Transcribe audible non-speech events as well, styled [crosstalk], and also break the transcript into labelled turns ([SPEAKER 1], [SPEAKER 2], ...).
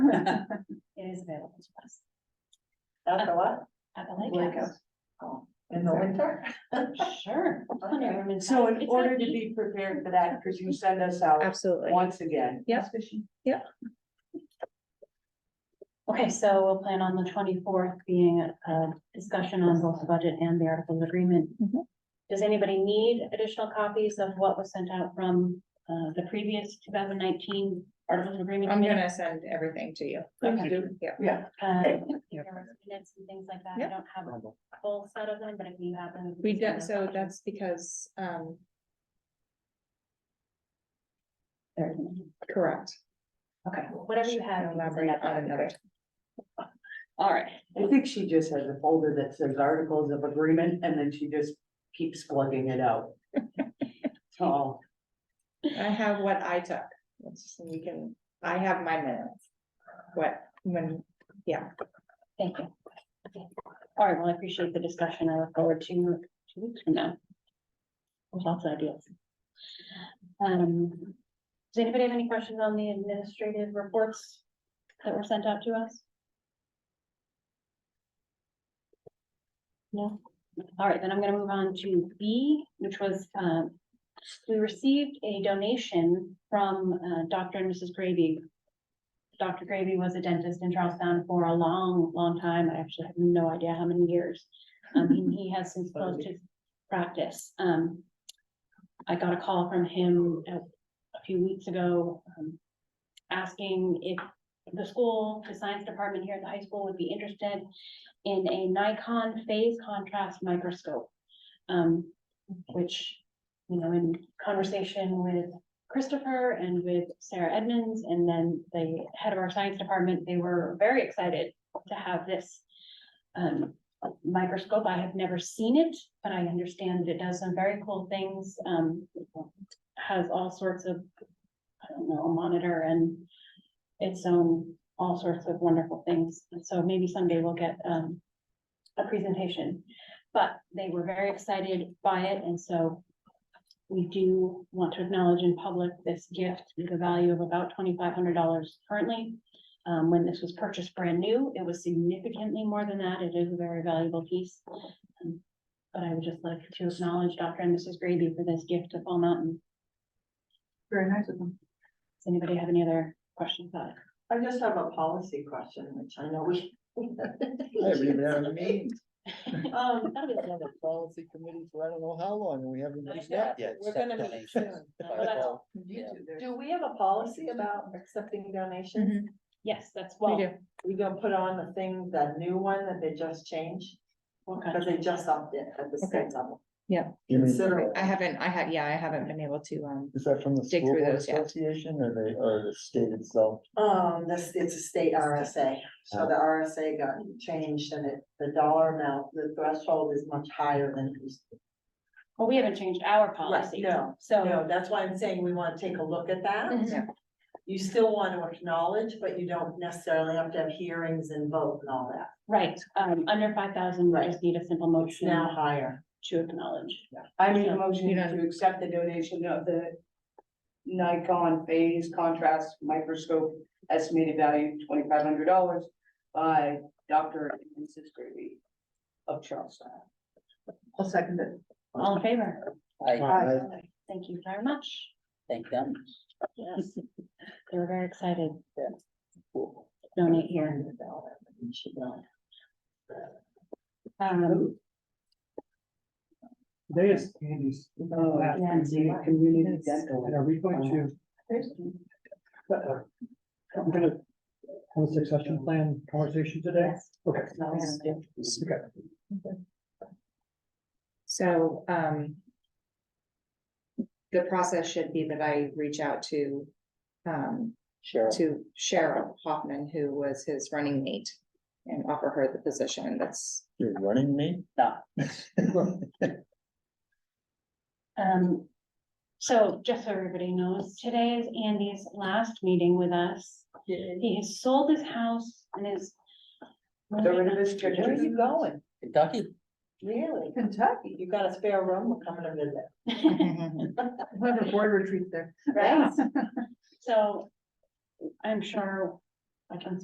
[SPEAKER 1] It is available to us
[SPEAKER 2] After what?
[SPEAKER 1] at the lake
[SPEAKER 2] Lake
[SPEAKER 1] house.
[SPEAKER 2] Oh, In the winter?
[SPEAKER 1] [laughs] Sure. I've never been-
[SPEAKER 2] [laughs] So in
[SPEAKER 1] It's
[SPEAKER 2] order
[SPEAKER 1] not
[SPEAKER 2] to
[SPEAKER 1] deep.
[SPEAKER 2] be prepared for that, because you send us out
[SPEAKER 3] Absolutely.
[SPEAKER 2] once again.
[SPEAKER 3] Yep.
[SPEAKER 1] Okay, so we'll plan on the twenty-fourth being a a discussion on both the budget and the articles of agreement.
[SPEAKER 3] Mhm.
[SPEAKER 1] Does anybody need additional copies of what was sent out from uh the previous two thousand nineteen articles of agreement?
[SPEAKER 3] I'm
[SPEAKER 1] committee?
[SPEAKER 3] gonna send everything to you.
[SPEAKER 1] Okay.
[SPEAKER 3] Yeah.
[SPEAKER 2] Yeah,
[SPEAKER 1] Uh, there was
[SPEAKER 2] Yeah.
[SPEAKER 1] minutes and things like that. I
[SPEAKER 3] Yeah.
[SPEAKER 1] don't have a full set of them, but if you have them.
[SPEAKER 3] We
[SPEAKER 1] can send
[SPEAKER 3] did,
[SPEAKER 1] us
[SPEAKER 3] so
[SPEAKER 1] copies.
[SPEAKER 3] that's because, um,
[SPEAKER 1] There.
[SPEAKER 3] correct.
[SPEAKER 1] Okay, whatever you have. you can send
[SPEAKER 3] Elaborate
[SPEAKER 1] that
[SPEAKER 3] on
[SPEAKER 1] back.
[SPEAKER 3] another.
[SPEAKER 1] All right.
[SPEAKER 2] I think she just has a folder that says articles of agreement, and then she just keeps plugging it out. So,
[SPEAKER 3] I have what I took. Let's- You can, I have my minutes. What, when,
[SPEAKER 1] Thank you. All right, well, I appreciate the discussion. I look forward to two weeks from now. With lots of ideas. Um, does anybody have any questions on the administrative reports that were sent out to us? No? All right, then I'm gonna move on to B, which was, um, we received a donation from, uh, Dr. and Mrs. Gravy Dr. Gravy was a dentist in Charlestown for a long, long time. I actually have no idea how many years. Um, he- he has since closed his practice. Um, I got a call from him a, a few weeks ago, um, asking if the school, the science department here at the high school would be interested in a Nikon phase contrast microscope. Um, which, you know, in conversation with Christopher and with Sarah Edmonds, and then the head of our science department, they were very excited to have this um, microscope. I have never seen it, but I understand that it does some very cool things. um, Has all sorts of, I don't know, a monitor and its own, all sorts of wonderful things. And so maybe someday we'll get um, a presentation. But they were very excited by it, and so we do want to acknowledge in public this gift, with a value of about twenty-five hundred dollars currently. Um, when this was purchased brand new, it was significantly more than that. It is a very valuable piece. Um, But I would just like to acknowledge Dr. and Mrs. Grady for this gift to Fall Mountain.
[SPEAKER 2] very nice of them.
[SPEAKER 1] Does anybody have any other questions about it?
[SPEAKER 2] I just have a policy question, which I know we.
[SPEAKER 4] Haven't even had a meeting.
[SPEAKER 2] Um,
[SPEAKER 1] That'll be the other.
[SPEAKER 4] The policy committee for I don't know how long, and we haven't
[SPEAKER 3] I
[SPEAKER 4] reached out
[SPEAKER 3] know.
[SPEAKER 4] yet.
[SPEAKER 3] We're gonna meet
[SPEAKER 4] Donations, [laughs]
[SPEAKER 3] soon.
[SPEAKER 4] if I
[SPEAKER 1] Well, that's-
[SPEAKER 4] recall.
[SPEAKER 2] do we have a policy about accepting donations?
[SPEAKER 3] Mhm,
[SPEAKER 1] Yes, that's
[SPEAKER 3] we
[SPEAKER 1] well.
[SPEAKER 3] do.
[SPEAKER 2] We gonna put on the thing, the new one that they just changed,
[SPEAKER 1] what kind
[SPEAKER 2] but
[SPEAKER 1] of-
[SPEAKER 2] they just upped it at the
[SPEAKER 3] Okay.
[SPEAKER 2] state level.
[SPEAKER 4] You mean,
[SPEAKER 2] Considerable.
[SPEAKER 3] I haven't, I have, yeah, I haven't been able to, um,
[SPEAKER 4] is that from the
[SPEAKER 3] Dig
[SPEAKER 4] school
[SPEAKER 3] through
[SPEAKER 4] board
[SPEAKER 3] those, yeah.
[SPEAKER 4] association or they, or the state itself?
[SPEAKER 2] Um, this, it's a state RSA, so
[SPEAKER 4] Oh.
[SPEAKER 2] the RSA got changed and it, the dollar amount, the threshold is much higher than. it used to be.
[SPEAKER 1] Well, we haven't changed our policy.
[SPEAKER 2] no,
[SPEAKER 1] So,
[SPEAKER 2] No, that's why I'm saying we wanna take a look at that.
[SPEAKER 1] Mhm.
[SPEAKER 3] Yeah.
[SPEAKER 2] You still wanna acknowledge, but you don't necessarily have to have hearings and vote and all that,
[SPEAKER 1] right, um, under five thousand, we
[SPEAKER 2] Right.
[SPEAKER 1] just need a simple
[SPEAKER 2] it's now
[SPEAKER 1] motion
[SPEAKER 2] higher.
[SPEAKER 1] to acknowledge.
[SPEAKER 5] I made
[SPEAKER 1] So,
[SPEAKER 5] a motion
[SPEAKER 3] you don't-
[SPEAKER 5] to accept the donation of the Nikon phase contrast microscope estimated value twenty-five hundred dollars by Dr. and Mrs. Gravy of Charleston.
[SPEAKER 2] I'll second it.
[SPEAKER 1] All in favor?
[SPEAKER 4] I- I-
[SPEAKER 1] Thank you very much.
[SPEAKER 4] Thank them.
[SPEAKER 1] Yes, they were very excited to donate here. Um,
[SPEAKER 6] Today is Andy's
[SPEAKER 1] yeah,
[SPEAKER 6] Oh, community dental, and are we going to, uh, I'm gonna have a succession plan conversation today?
[SPEAKER 1] yes,
[SPEAKER 6] Okay.
[SPEAKER 1] no, yeah.
[SPEAKER 6] Okay.
[SPEAKER 3] so, um. The process should be that I reach out to, um,
[SPEAKER 4] Sure.
[SPEAKER 3] to Cheryl Hoffman, who was his running mate. And offer her the
[SPEAKER 1] [laughs]
[SPEAKER 3] position [laughs] that's,
[SPEAKER 4] You're running me? [laughs] No.
[SPEAKER 1] Um, so just so everybody knows, today is Andy's last meeting with us. He has sold his house and is.
[SPEAKER 5] Get rid of his
[SPEAKER 2] Where are
[SPEAKER 5] pictures.
[SPEAKER 2] you going?
[SPEAKER 4] Kentucky.
[SPEAKER 2] Really? Kentucky. You got a spare room, we're coming to visit.
[SPEAKER 3] Mhm.
[SPEAKER 5] We'll have a board retreat there.
[SPEAKER 1] Right? So I'm sure I can